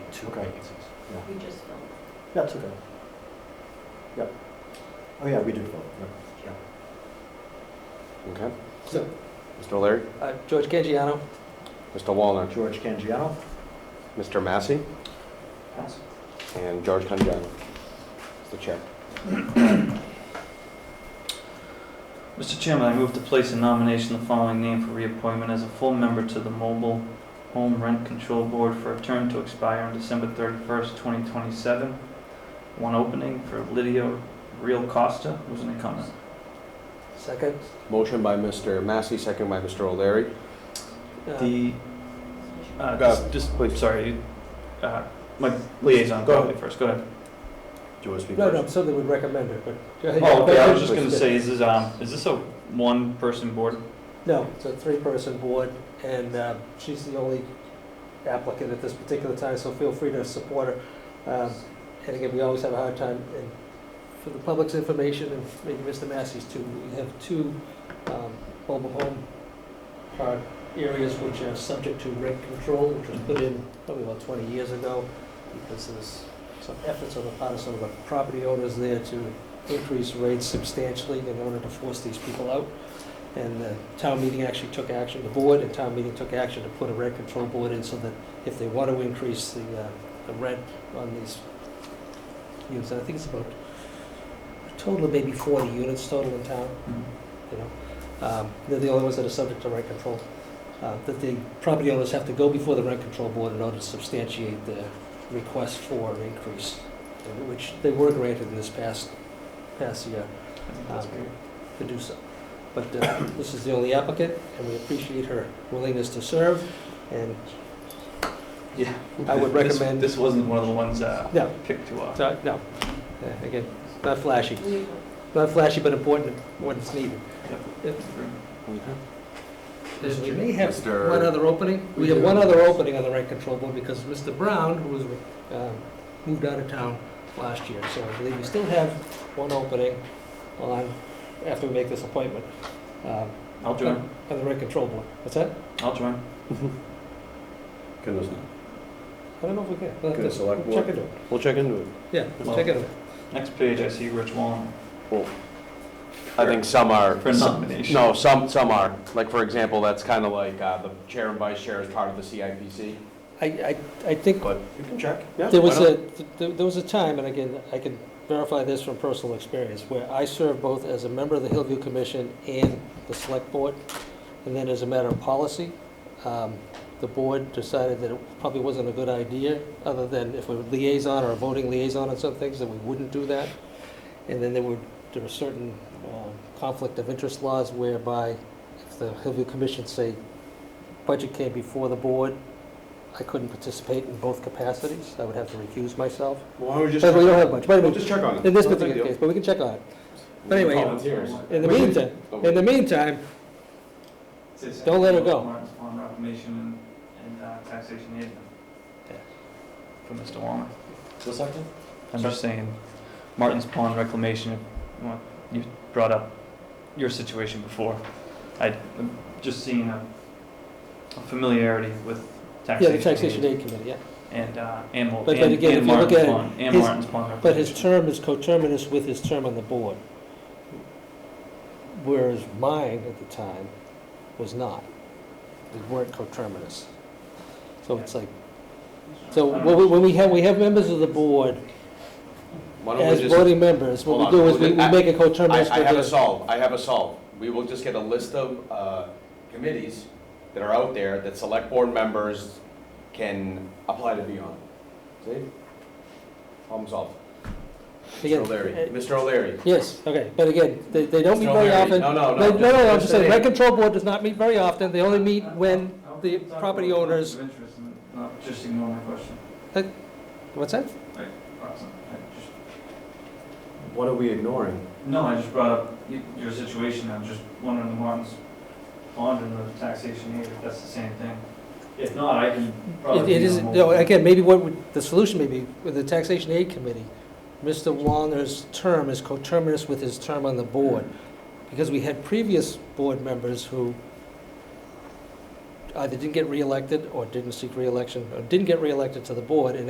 Okay. We just filled. That's okay. Yep. Oh, yeah, we did vote, yep. Okay. So- Mr. O'Leary, Uh, George Cangiano, Mr. Walner, George Cangiano? Mr. Massey, Pass. and George Conjano. Mr. Chair. Mr. Chairman, I move to place in nomination the following name for reappointment as a full member to the Mobile Home Rent Control Board for a term to expire on December 31st, 2027. One opening for Lydia Real Costa, who's an incumbent. second. Motion by Mr. Massey, second by Mr. O'Leary. Uh, The, uh, Go. just- just, wait, sorry, you- uh, my liaison, Go go ahead. ahead first, go ahead. Do you want to speak No, no, first? I'm sure they would recommend it, but. go ahead. Oh, okay, I was just please. gonna say, is this, um, is this a one-person board? No, it's a three-person board, and uh, she's the only applicant at this particular time, so feel free to support her. Um, And again, we always have a hard time, and for the public's information, and maybe Mr. Massey's too, we have two um, mobile home park areas which are subject to rent control, which was put in probably about 20 years ago, because there's some efforts on the part of some of the property owners there to increase rates substantially in order to force these people out. And the town meeting actually took action, the board and town meeting took action to put a rent control board in so that if they want to increase the, uh, the rent on these units, and I think it's about, a total of maybe forty units total in town, Mm-hmm. you know. Um, they're the only ones that are subject to rent control, uh, that the property owners have to go before the rent control board in order to substantiate the request for an increase, uh, which they were granted in this past, past year I think that's Um, great. to do so. But uh, this is the only applicant, and we appreciate her willingness to serve, and Yeah. I would This- recommend- This wasn't one of the ones, uh, No. picked to, uh, So, no, Uh, again, not flashy, We- not flashy, but important when it's needed. Mr. We may have Mr. one other opening, we have one other opening on the rent control board, because Mr. Brown, who was, uh, moved out of town last year, so I believe we still have one opening on, after we make this appointment, um, I'll join, on the rent control board. What's that? I'll join. Goodness. I don't know if we can. We'll have Good, to- select we'll Check board. into it. We'll check into it. Yeah, we'll Well- check into it. Next page, I see Rich Wallen I think some are. for nomination. No, some, some are. Like, for example, that's kind of like uh, the chair and vice chair is part of the CIPC, I, I, I think but you can check. Yeah, there why was not? a, there there was a time, and again, I can verify this from personal experience, where I served both as a member of the Hillview Commission and the Select Board, and then as a matter of policy, um, the board decided that it probably wasn't a good idea, other than if we were liaison or a voting liaison on some things, that we wouldn't do that. And then there were, there were certain um, conflict of interest laws whereby if the Hillview Commission say budget came before the board, I couldn't participate in both capacities. I would have to recuse myself. Why don't we just But we don't have much, but We'll anyway, just check on it. in this No big particular deal. case, but we can check on it. We can anyway, call you know, volunteers. In the Wait, wait. meantime, Oh, in the meantime, Don't let her go. On reclamation and, and uh, taxation aid. For Mr. Walner. Just a second. I'm just saying, Martin's Pond reclamation, you want- you brought up your situation before. I, I'm just seeing a a familiarity with yeah, taxation. the taxation aid aid committee, yeah. And, uh, and, Mo- But- but and again, if and you look Martin's at it, Pond, and his- Martin's Pond But his reclamation. term is coterminous with his term on the board. Whereas mine at the time was not. They weren't coterminous. So it's like, so Um, when we- when we have, we have members of the board Why don't we as just- voting members, what we Hold on, do is we'll we get- we I- make a coterminous. I, I with have the- a solve, I have a solve. We will just get a list of, uh, committees that are out there that select board members can apply to be on. See? Problem solved. Again, Mr. O'Leary, uh, Mr. O'Leary. Yes, okay, but again, they, they don't meet Mr. very O'Leary. often. No, no, no, They- just- No, no, I'm just just the saying, rent name. control board does not meet very often, they only meet when, the property owners- Not just ignore my question. what's that? What are we ignoring? No, I just brought up y- your situation, I'm just wondering the Martin's bond and the taxation aid, if that's the same thing. If not, I can It probably. it be is, on no, hold. again, maybe what, would- the solution may be, with the taxation aid committee, Mr. Wallner's term is coterminous with his term on the board, because we had previous board members who either didn't get reelected, or didn't seek reelection, or didn't get reelected to the board, and